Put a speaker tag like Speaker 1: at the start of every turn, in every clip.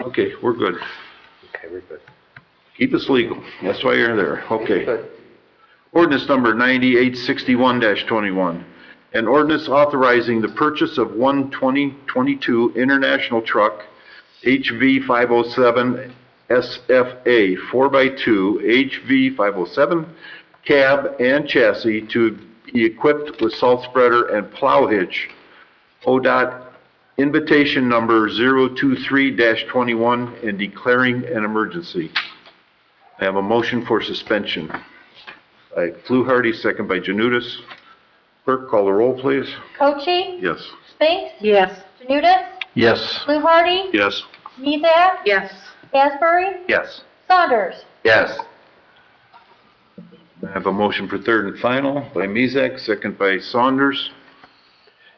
Speaker 1: Okay, we're good.
Speaker 2: Okay, we're good.
Speaker 1: Keep us legal. That's why you're there. Okay.
Speaker 2: Good.
Speaker 1: Ordinance number 9861-21. An ordinance authorizing the purchase of one 2022 International Truck HV 507 SFA 4x2 HV 507 cab and chassis to be equipped with salt spreader and plow hitch. ODOT invitation number 023-21 and declaring an emergency. I have a motion for suspension. By Fluharty, second by Janutus. Clerk, call the roll, please.
Speaker 3: Coche,
Speaker 1: Yes.
Speaker 3: Spinks,
Speaker 4: Yes.
Speaker 3: Janutus,
Speaker 1: Yes.
Speaker 3: Fluharty,
Speaker 1: Yes.
Speaker 3: Miesak,
Speaker 4: Yes.
Speaker 3: Asbury,
Speaker 1: Yes.
Speaker 3: Saunders.
Speaker 1: Yes. I have a motion for third and final by Mezak, second by Saunders.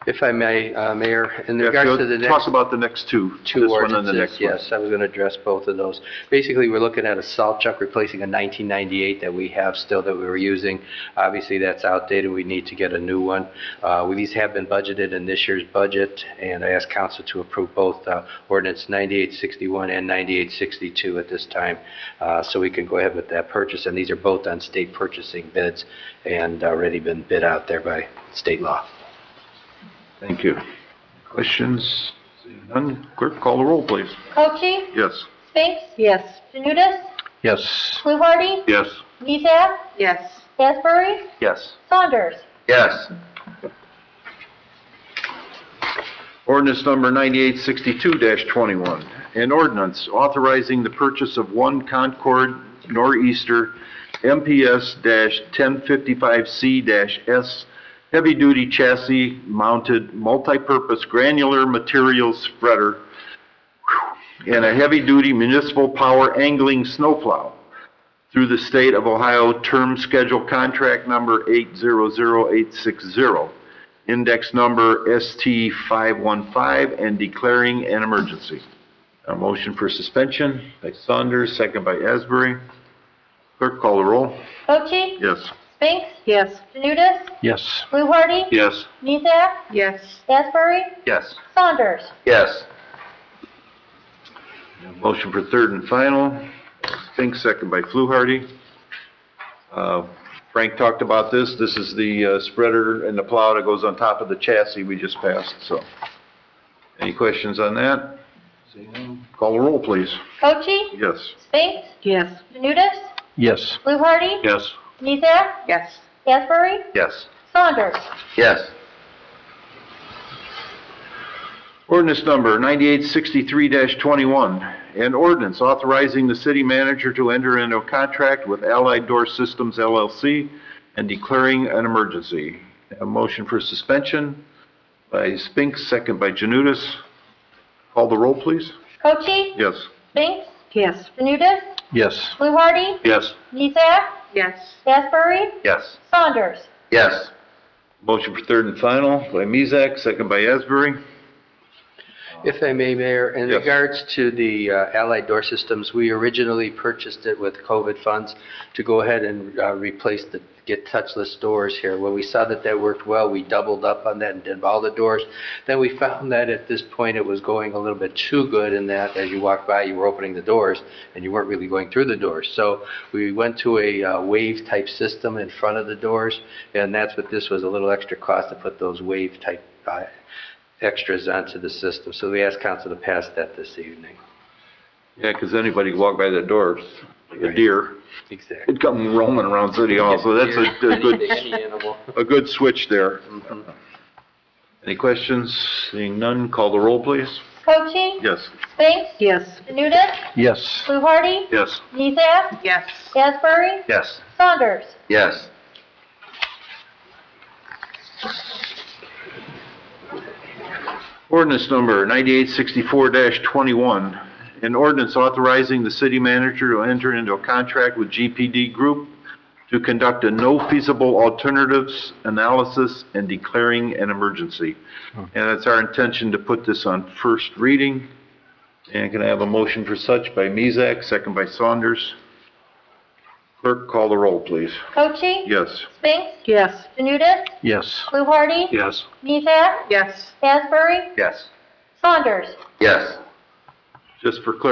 Speaker 2: If I may, uh, Mayor, in
Speaker 1: Yeah,
Speaker 2: regards
Speaker 1: so
Speaker 2: to the next...
Speaker 1: Talk about the next two.
Speaker 2: two
Speaker 1: This one and the
Speaker 2: ordinances,
Speaker 1: next one.
Speaker 2: yes, I was going to address both of those. Basically, we're looking at a salt chuck replacing a 1998 that we have still that we were using. Obviously, that's outdated, we need to get a new one. Uh, we- These have been budgeted in this year's budget, and I ask council to approve both uh, ordinance 9861 and 9862 at this time, uh, so we can go ahead with that purchase, and these are both on state purchasing bids and uh, already been bid out there by state law.
Speaker 1: Thank you. Questions? Seeing None. Clerk, call the roll, please.
Speaker 3: Coche,
Speaker 1: Yes.
Speaker 3: Spinks,
Speaker 4: Yes.
Speaker 3: Janutus,
Speaker 2: Yes.
Speaker 3: Fluharty,
Speaker 1: Yes.
Speaker 3: Miesak,
Speaker 4: Yes.
Speaker 3: Asbury,
Speaker 1: Yes.
Speaker 3: Saunders.
Speaker 1: Yes. Ordinance number 9862-21, an ordinance authorizing the purchase of one Concord Nor'easter MPS-1055C-S heavy-duty chassis mounted multipurpose granular materials spreader and a heavy-duty municipal power angling snowplow through the State of Ohio Term Schedule Contract Number 800860, index number ST515, and declaring an emergency. A motion for suspension by Saunders, second by Asbury. Clerk, call the roll.
Speaker 3: Coche,
Speaker 1: Yes.
Speaker 3: Spinks,
Speaker 4: Yes.
Speaker 3: Janutus,
Speaker 2: Yes.
Speaker 3: Fluharty,
Speaker 1: Yes.
Speaker 3: Miesak,
Speaker 4: Yes.
Speaker 3: Asbury,
Speaker 1: Yes.
Speaker 3: Saunders.
Speaker 1: Yes. Motion for third and final, Fink, second by Fluharty. Uh, Frank talked about this, this is the uh, spreader and the plow that goes on top of the chassis we just passed, so. Any questions on that? Seeing none, Call the roll, please.
Speaker 3: Coche,
Speaker 1: Yes.
Speaker 3: Spinks,
Speaker 4: Yes.
Speaker 3: Janutus,
Speaker 2: Yes.
Speaker 3: Fluharty,
Speaker 1: Yes.
Speaker 3: Miesak,
Speaker 4: Yes.
Speaker 3: Asbury,
Speaker 1: Yes.
Speaker 3: Saunders.
Speaker 1: Yes. Ordinance number 9863-21, an ordinance authorizing the city manager to enter into a contract with Allied Door Systems LLC and declaring an emergency. A motion for suspension by Spinks, second by Janutus. Call the roll, please.
Speaker 3: Coche,
Speaker 1: Yes.
Speaker 3: Spinks,
Speaker 4: Yes.
Speaker 3: Janutus,
Speaker 2: Yes.
Speaker 3: Fluharty,
Speaker 1: Yes.
Speaker 3: Miesak,
Speaker 4: Yes.
Speaker 3: Asbury,
Speaker 1: Yes.
Speaker 3: Saunders.
Speaker 1: Yes. Motion for third and final by Mezak, second by Asbury.
Speaker 2: If I may, Mayor, in
Speaker 1: Yes.
Speaker 2: regards to the uh, Allied Door Systems, we originally purchased it with COVID funds to go ahead and uh, replace the, get touchless doors here. When we saw that that worked well, we doubled up on that and did all the doors. Then we found that at this point, it was going a little bit too good in that as you walked by, you were opening the doors and you weren't really going through the doors. So we went to a uh, wave-type system in front of the doors, and that's what this was, a little extra cost to put those wave-type uh, extras onto the system. So we asked council to pass that this evening.
Speaker 1: Yeah, 'cause anybody could walk by that door, like a deer.
Speaker 2: Exactly.
Speaker 1: It'd come roaming around City Hall, so that's a, a good,
Speaker 2: Any animal.
Speaker 1: a good switch there.
Speaker 2: Mhm.
Speaker 1: Any questions? Seeing none, call the roll, please.
Speaker 3: Coche,
Speaker 1: Yes.
Speaker 3: Spinks,
Speaker 4: Yes.
Speaker 3: Janutus,
Speaker 2: Yes.
Speaker 3: Fluharty,
Speaker 1: Yes.
Speaker 3: Miesak,
Speaker 4: Yes.
Speaker 3: Asbury,
Speaker 1: Yes.
Speaker 3: Saunders.
Speaker 1: Yes. Ordinance number 9864-21, an ordinance authorizing the city manager to enter into a contract with GPD Group to conduct a no feasible alternatives analysis and declaring an emergency. And it's our intention to put this on first reading. And can I have a motion for such by Mezak, second by Saunders? Clerk, call the roll, please.
Speaker 3: Coche,
Speaker 1: Yes.
Speaker 3: Spinks,
Speaker 4: Yes.
Speaker 3: Janutus,
Speaker 2: Yes.
Speaker 3: Fluharty,
Speaker 1: Yes.
Speaker 3: Miesak,
Speaker 4: Yes.
Speaker 3: Asbury,
Speaker 1: Yes.
Speaker 3: Saunders.
Speaker 1: Yes. Just for clarification,